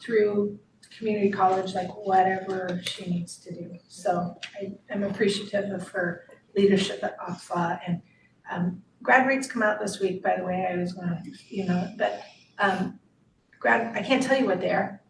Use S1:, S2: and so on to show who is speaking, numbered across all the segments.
S1: through community college, like whatever she needs to do. So I am appreciative of her leadership at OPFA and um grad rates come out this week, by the way, I was gonna, you know, but um grad, I can't tell you what they are.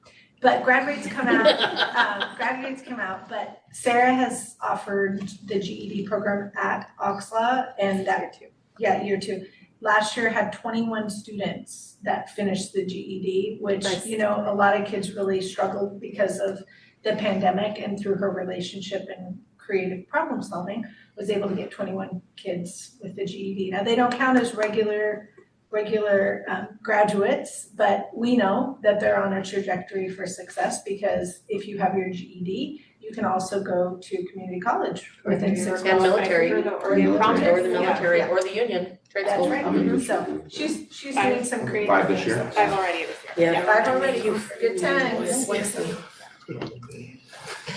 S1: But grad rates come out um, graduates come out, but Sarah has offered the GED program at Oxla and that. Yeah, year two. Last year had twenty-one students that finished the GED, which,
S2: Nice.
S1: you know, a lot of kids really struggled because of the pandemic and through her relationship and creative problem solving, was able to get twenty-one kids with the GED. Now, they don't count as regular, regular um, graduates, but we know that they're on a trajectory for success because if you have your GED, you can also go to community college within six months.
S2: And military,
S3: Or the-
S2: or the prompt, or the
S1: Yeah,
S2: military,
S1: yeah.
S2: or the union, trade
S1: That's
S2: school.
S1: right.
S2: Mhm.
S1: So she's, she's
S3: Five.
S1: doing some creative things.
S4: Five this year?
S3: I've already this year.
S2: Yeah.
S1: Five already, good times.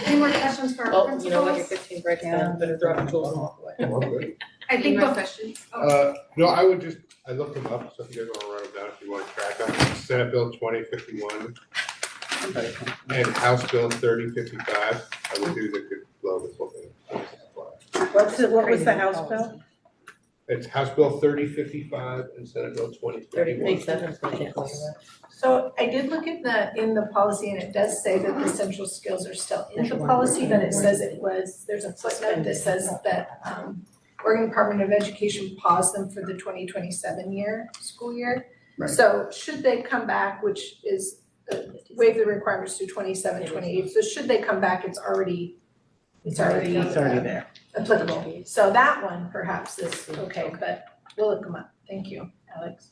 S5: Any more questions for our
S2: Oh, you know what, your
S5: principals?
S2: fifteenth break's done, better throw out the tools and walk away.
S5: I think
S3: Any
S5: the
S3: more
S5: questions.
S6: Uh, no, I would just, I looked them up, so if you guys wanna write them down, if you wanna track them, Senate Bill twenty fifty-one. And House Bill thirty fifty-five, I would do that could blow this whole thing.
S7: What's it, what was the House bill?
S6: It's House Bill thirty fifty-five and Senate Bill twenty
S2: Thirty,
S6: fifty-one.
S2: seven, twenty, twenty-one.
S1: So I did look at the, in the policy and it does say that the essential skills are still in the policy, but it says it was, there's a footnote that says that um Oregon Department of Education paused them for the twenty twenty seven year, school year.
S4: Right.
S1: So should they come back, which is uh, waive the requirements to 27, 28. so should they come back, it's already, it's already
S7: It's already there.
S1: applicable. So that one perhaps is okay, but we'll look them up. Thank you, Alex.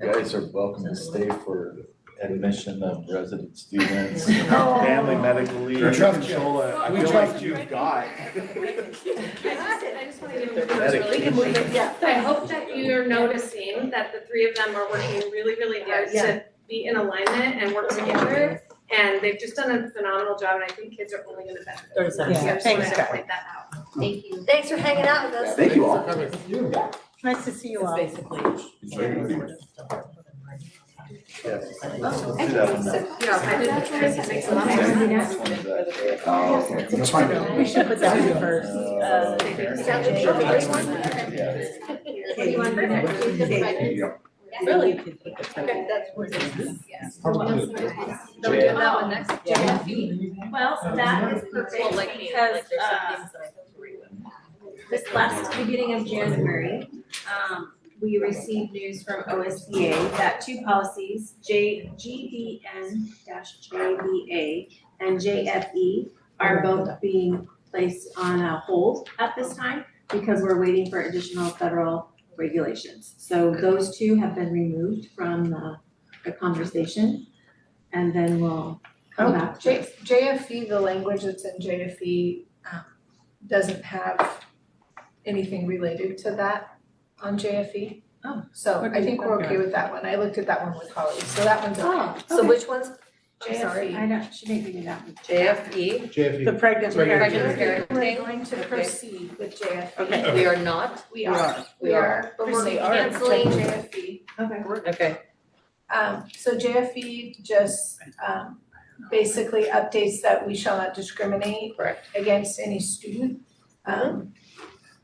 S8: Guys are welcome to stay for admission of resident students.
S1: Oh.
S9: Family medical leave.
S4: We trust you.
S9: Controller. I
S4: We
S9: feel
S4: trust
S9: like
S4: you.
S9: you've got.
S3: I just, I just wanna give
S2: They're
S3: really
S1: We can move it, yeah.
S3: So I hope that you're noticing that the three of them are working really, really hard
S1: Yeah.
S3: to be in alignment and work together. And they've just done a phenomenal job and I think kids are only gonna benefit.
S2: Thirty seconds.
S3: So I
S7: Yeah,
S3: just wanted
S7: thanks,
S3: to
S7: guys.
S3: point that out.
S2: Thank you.
S5: Thanks for hanging out with us.
S4: Thank you all.
S7: Nice to see you
S2: It's
S7: all.
S2: basically.
S4: Yes.
S2: Oh.
S4: Do that one now.
S2: Yeah, I didn't try to make some.
S4: Which one's that? Oh, okay.
S8: That's fine.
S7: We should put that in first.
S4: Uh, Yeah.
S5: What do you want to do next? Do you just like-
S4: Yeah.
S2: Really?
S5: Okay, that's where it is.
S2: No,
S4: we do
S2: that one next. Yeah.
S3: Well, that is perfect
S2: Well, like me, like
S3: because
S2: there's some
S3: uh
S2: things that I don't agree with.
S10: This last beginning of January, um, we received news from OSBA that two policies, J, GBN JBA and JFE are both being placed on a hold at this time because we're waiting for additional federal regulations. So those two have been removed from the, the conversation and then we'll come back to
S1: J JFE, E, the language that's in JFE, um, doesn't have anything related to that on JFE.
S2: Oh.
S1: So
S7: What
S1: I
S7: do
S1: think
S7: you-
S1: we're okay with that one, I looked at that one with colleagues, so that one's okay.
S2: Oh, E.
S5: So which one's,
S1: I'm sorry.
S10: I don't, she didn't give me that one.
S2: JFE,
S6: JFE.
S7: The pregnant
S6: Pregnant
S7: parent.
S2: parent.
S1: We're going to
S2: Okay.
S1: proceed with JFE.
S2: okay, we are not,
S1: We are, we are, but we're
S2: Proceed. Alright.
S1: canceling E. JFE.
S10: Okay.
S2: okay,
S1: Um, so JFE just, um, basically updates that we shall not discriminate
S2: Correct.
S1: against any student, um,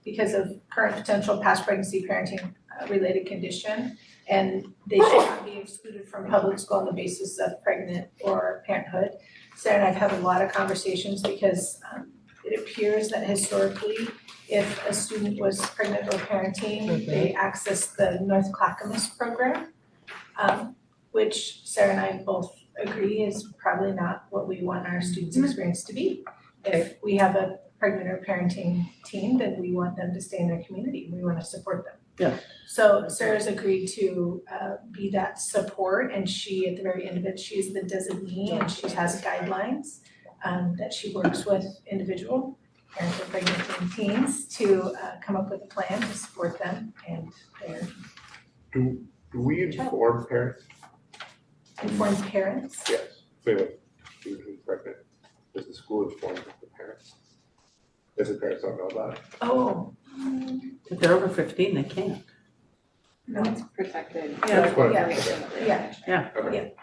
S1: because of current potential past pregnancy, parenting, uh, related condition. And they should not be excluded from public school on the basis of pregnant or parenthood. Sarah and I've had a lot of conversations because, um, it appears that historically, if a student was pregnant or parenting, they accessed the North Clackamas program. Um, which Sarah and I both agree is probably not what we want our students' experience to be. If we have a pregnant or parenting team, then we want them to stay in their community, we wanna support them.
S7: Yeah.
S1: So Sarah's agreed to uh be that support and she, at the very end of it, she is the designee and she has guidelines um, that she works with individual parents of pregnant teen teens to uh come up with a plan to support them and their
S6: Do, do we inform parents?
S1: informed parents.
S6: Yes. Wait, wait, student who's pregnant, does the school inform the parents? Does the parents not know about it?
S1: Oh.
S7: If they're over fifteen, they can't.
S1: No,
S2: protected.
S6: That's what I'm-
S1: yeah,
S6: Okay.